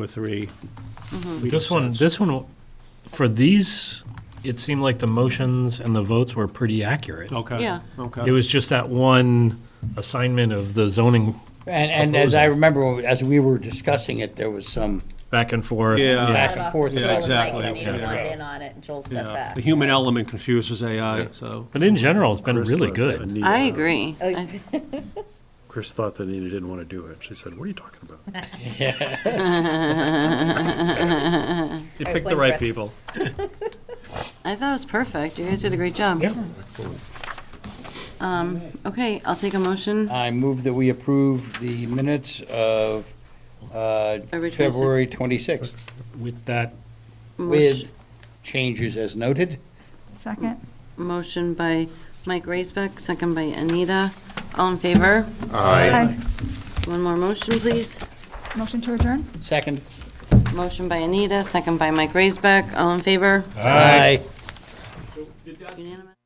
or three. This one, this one, for these, it seemed like the motions and the votes were pretty accurate. Okay. Yeah. It Okay. was just that one assignment of the zoning And, and as I remember, as we were discussing it, there was some back and forth. Yeah. back and forth Yeah, about it. exactly. Like, Anita yeah. wanted in on it, and Joel stepped Yeah. back. The human element confuses AI, so. But in general, it's been really good. I agree. Oh, I- Chris thought that Anita didn't want to do it. She said, what are you talking about? You I picked the blame right Chris. people. I thought it was perfect. You guys did a great job. Um, Yeah. Okay, I'll take a motion. I move that we approve the minutes of uh, February February 26th With that, with changes as noted. Second. Motion by Mike Raisbeck, second by Anita. All in favor? Aye. One more motion, please. Motion to adjourn? Second. Motion by Anita, second by Mike Raisbeck. All in favor? Aye. Unanimous.